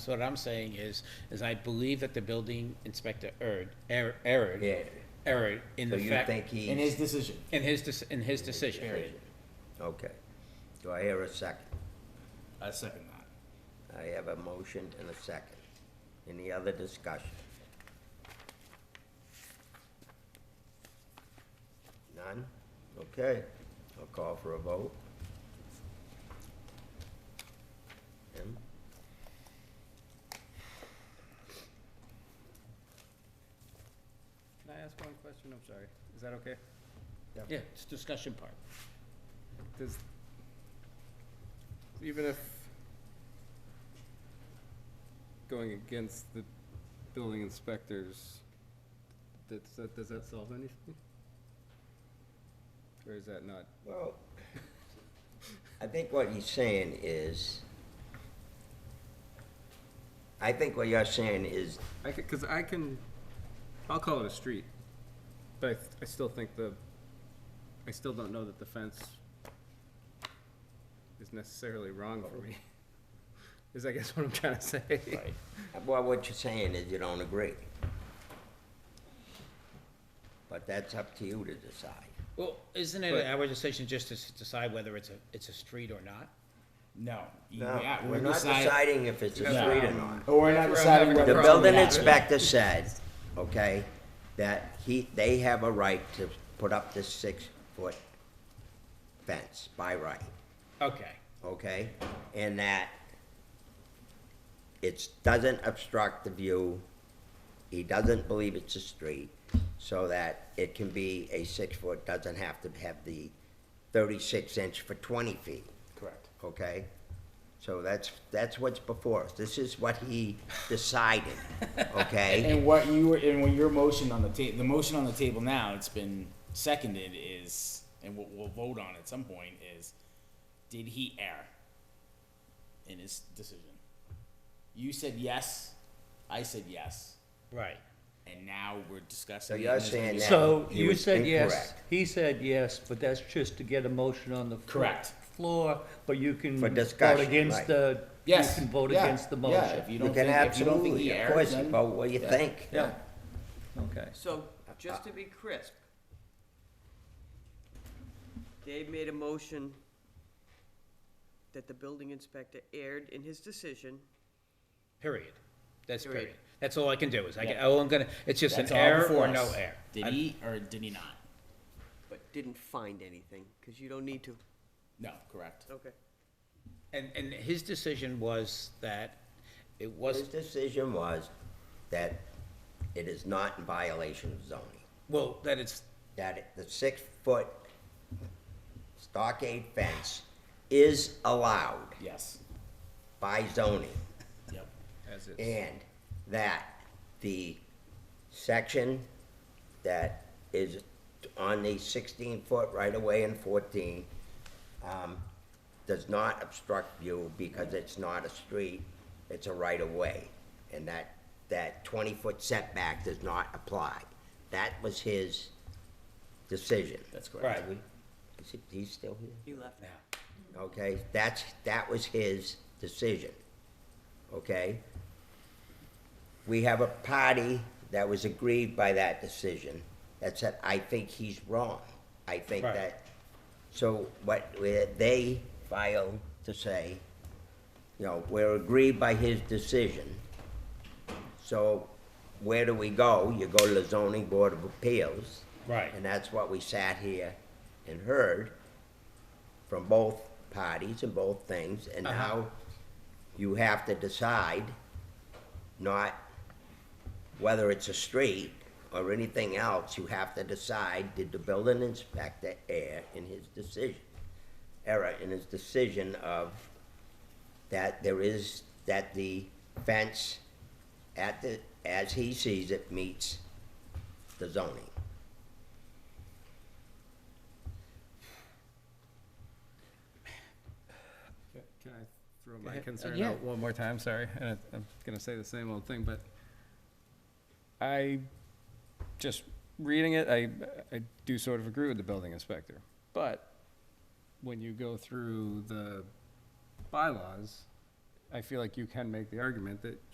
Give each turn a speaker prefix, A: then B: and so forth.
A: So what I'm saying is, is I believe that the building inspector erred, err- erred,
B: Yeah.
A: erred in
B: So
A: the
B: you
A: fact,
B: think
C: in his
B: he's,
C: decision.
A: in his, dec- in his decision.
B: okay. Do I hear a second?
C: I second that.
B: I have a motion and a second. Any other discussion? None? Okay, I'll call for a vote. Jim?
D: Can I ask one question? I'm sorry. Is that okay?
A: Yeah, it's discussion part.
D: Does, even if going against the building inspectors, that's, that, does that solve anything? Or is that not?
B: Well, I think what he's saying is, I think what you're saying is,
D: I could, cause I can, I'll call it a street, but I, th- I still think the, I still don't know that the fence is necessarily wrong for me. Is I guess what I'm trying to say.
B: well, what you're saying is you don't agree. But that's up to you to decide.
A: Well, isn't it
D: But-
A: our decision just to s- decide whether it's a, it's a street or not?
C: No. you-
B: No,
C: yeah,
B: we're not
C: decide-
B: deciding if it's a
D: Yeah.
B: street or not.
C: Or we're not
D: That's where I'm
C: deciding
D: having a
C: whether.
B: The
C: it's
B: building
C: allowed.
B: inspector said, okay, that he, they have a right to put up this six-foot fence by right,
A: Okay,
B: okay? And that it doesn't obstruct the view, he doesn't believe it's a street, so that it can be a six-foot, doesn't have to have the thirty-six inch for twenty feet
C: Correct.
B: okay? So that's, that's what's before us. This is what he decided, okay?
C: And what you were, and what your motion on the ta, the motion on the table now, it's been seconded is, and what we'll vote on at some point is, did he err in his decision? You said yes, I said yes,
A: right.
C: and now we're
B: So
C: discussing. it
B: you're
C: and there's gonna
B: saying
C: be-
B: that.
E: So
B: he
E: you
B: was
E: said yes,
B: incorrect.
E: he said yes, but that's just to get a motion on the fl-
C: Correct.
E: floor, but you can
B: For
E: vote
B: discussion,
E: against
B: right.
E: the, you
C: Yes.
E: can vote
C: yeah,
E: against the
C: yeah,
E: motion.
C: if you
B: You
C: don't
B: can
C: think, if you don't think
B: absolutely,
C: he
B: of
C: erred,
B: course,
C: then-
B: vote what you
C: yeah,
B: think.
C: Yeah.
E: Okay.
F: So, just to be crisp, Dave made a motion that the building inspector erred in his decision.
A: Period. That's
F: Period.
A: period. That's all I can do is I, can-
C: Yeah.
A: all I'm gonna, it's just an
C: That's all
A: error
C: before
A: or no
C: us.
A: error.
C: Did
A: I'm-
C: he or did he not?
F: But didn't find anything, because you don't need to.
C: No, correct.
F: Okay.
A: And, and his decision was that it
B: His
A: was,
B: decision was that it is not in violation of zoning,
A: well, that it's,
B: that it- the six-foot stockade fence is allowed
C: Yes.
B: by zoning.
C: Yep.
D: As it's.
B: And that the section that is on the sixteen foot right away and fourteen, um, does not obstruct view because it's not a street, it's a right of way. And that, that twenty foot setback does not apply. That was his decision.
C: That's correct.
A: right,
B: Is he, he's still here?
F: He left.
A: now,
B: okay? That's, that was his decision, okay? We have a party that was aggrieved by that decision, that said, I think he's wrong. I think
A: Right.
B: that, so what we- they filed to say, you know, we're aggrieved by his decision. So where do we go? You go to the zoning board of appeals.
A: Right.
B: And that's what we sat here and heard from both parties and both things, and now you have to decide not whether it's a street or anything else, you have to decide, did the building inspector err in his decision? Error in his decision of that there is, that the fence at the, as he sees it, meets the zoning.
D: Can I throw my
A: ahead. Uh,
D: concern
A: yeah.
D: out one more time? Sorry, and I- I'm gonna say the same old thing, but I, just reading it, I, I do sort of agree with the building inspector. But when you go through the bylaws, I feel like you can make the argument that